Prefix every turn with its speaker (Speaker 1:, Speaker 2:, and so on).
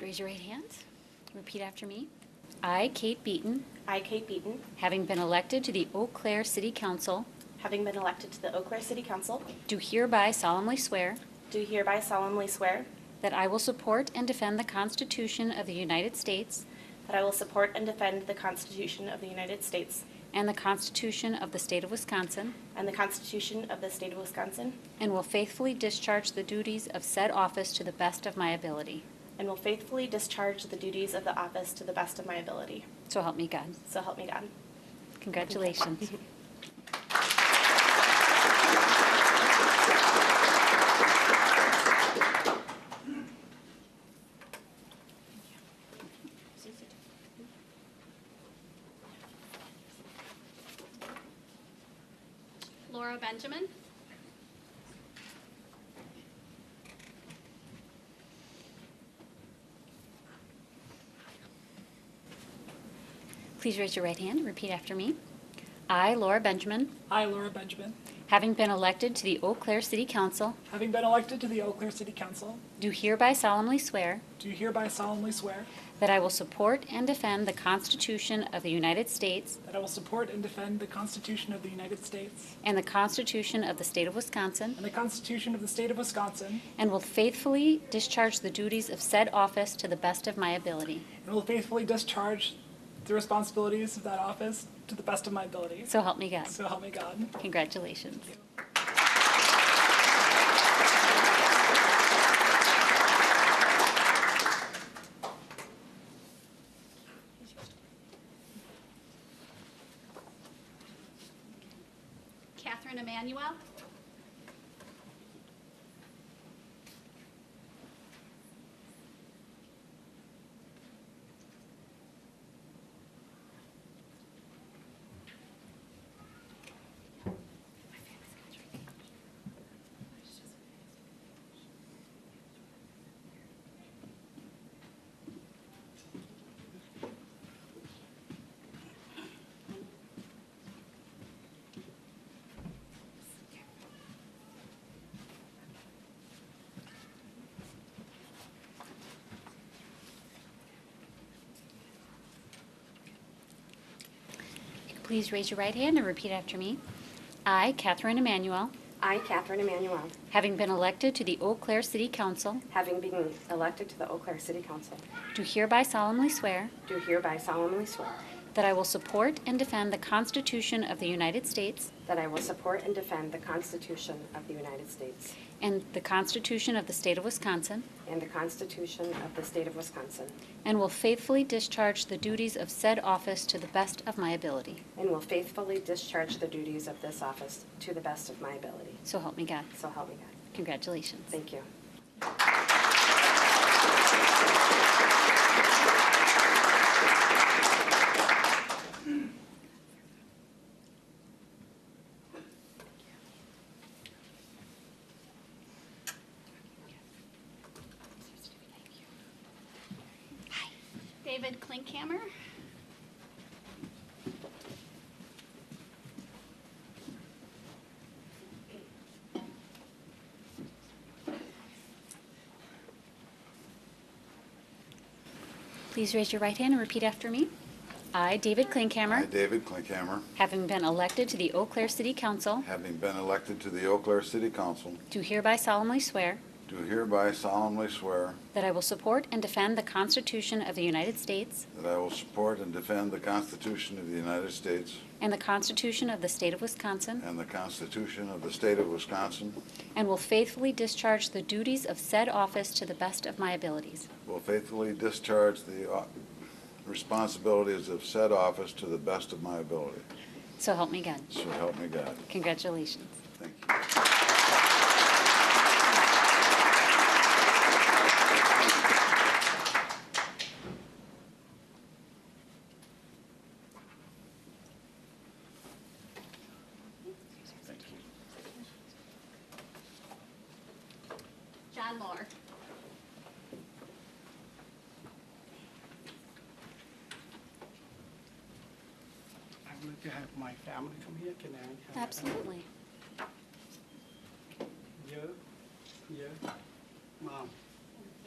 Speaker 1: Raise your right hands. Repeat after me. I, Kate Beaton,
Speaker 2: I, Kate Beaton,
Speaker 1: having been elected to the Eau Claire City Council,
Speaker 2: having been elected to the Eau Claire City Council,
Speaker 1: do hereby solemnly swear
Speaker 2: do hereby solemnly swear
Speaker 1: that I will support and defend the Constitution of the United States
Speaker 2: that I will support and defend the Constitution of the United States
Speaker 1: and the Constitution of the State of Wisconsin,
Speaker 2: and the Constitution of the State of Wisconsin,
Speaker 1: and will faithfully discharge the duties of said office to the best of my ability.
Speaker 2: and will faithfully discharge the duties of the office to the best of my ability.
Speaker 1: So help me God.
Speaker 2: So help me God.
Speaker 1: Congratulations.
Speaker 3: Laura Benjamin.
Speaker 1: Please raise your right hand and repeat after me. I, Laura Benjamin,
Speaker 4: I, Laura Benjamin,
Speaker 1: having been elected to the Eau Claire City Council,
Speaker 4: having been elected to the Eau Claire City Council,
Speaker 1: do hereby solemnly swear
Speaker 4: do hereby solemnly swear
Speaker 1: that I will support and defend the Constitution of the United States
Speaker 4: that I will support and defend the Constitution of the United States
Speaker 1: and the Constitution of the State of Wisconsin,
Speaker 4: and the Constitution of the State of Wisconsin,
Speaker 1: and will faithfully discharge the duties of said office to the best of my ability.
Speaker 4: and will faithfully discharge the responsibilities of that office to the best of my ability.
Speaker 1: So help me God.
Speaker 4: So help me God.
Speaker 1: Congratulations.
Speaker 3: Catherine Emmanuel.
Speaker 1: Please raise your right hand and repeat after me. I, Catherine Emmanuel,
Speaker 5: I, Catherine Emmanuel,
Speaker 1: having been elected to the Eau Claire City Council,
Speaker 5: having been elected to the Eau Claire City Council,
Speaker 1: do hereby solemnly swear
Speaker 5: do hereby solemnly swear
Speaker 1: that I will support and defend the Constitution of the United States
Speaker 5: that I will support and defend the Constitution of the United States
Speaker 1: and the Constitution of the State of Wisconsin,
Speaker 5: and the Constitution of the State of Wisconsin,
Speaker 1: and will faithfully discharge the duties of said office to the best of my ability.
Speaker 5: and will faithfully discharge the duties of this office to the best of my ability.
Speaker 1: So help me God.
Speaker 5: So help me God.
Speaker 1: Congratulations.
Speaker 5: Thank you.
Speaker 3: David Klinkhammer.
Speaker 1: Please raise your right hand and repeat after me. I, David
Speaker 6: I,
Speaker 1: Klinkhammer,
Speaker 6: David Klinkhammer,
Speaker 1: having been elected to the Eau Claire City Council,
Speaker 6: having been elected to the Eau Claire City Council,
Speaker 1: do hereby solemnly swear
Speaker 6: do hereby solemnly swear
Speaker 1: that I will support and defend the Constitution of the United States
Speaker 6: that I will support and defend the Constitution of the United States
Speaker 1: and the Constitution of the State of Wisconsin,
Speaker 6: and the Constitution of the State of Wisconsin,
Speaker 1: And will faithfully discharge the duties of said office to the best of my abilities.
Speaker 6: will faithfully discharge the uh, responsibilities of said office to the best of my ability.
Speaker 1: So help me God.
Speaker 6: So help me God.
Speaker 1: Congratulations.
Speaker 6: Thank you.
Speaker 3: John Moore.
Speaker 7: I wanted to have my family come here, can I? have-
Speaker 1: Absolutely.
Speaker 7: Yeah, yeah, mom.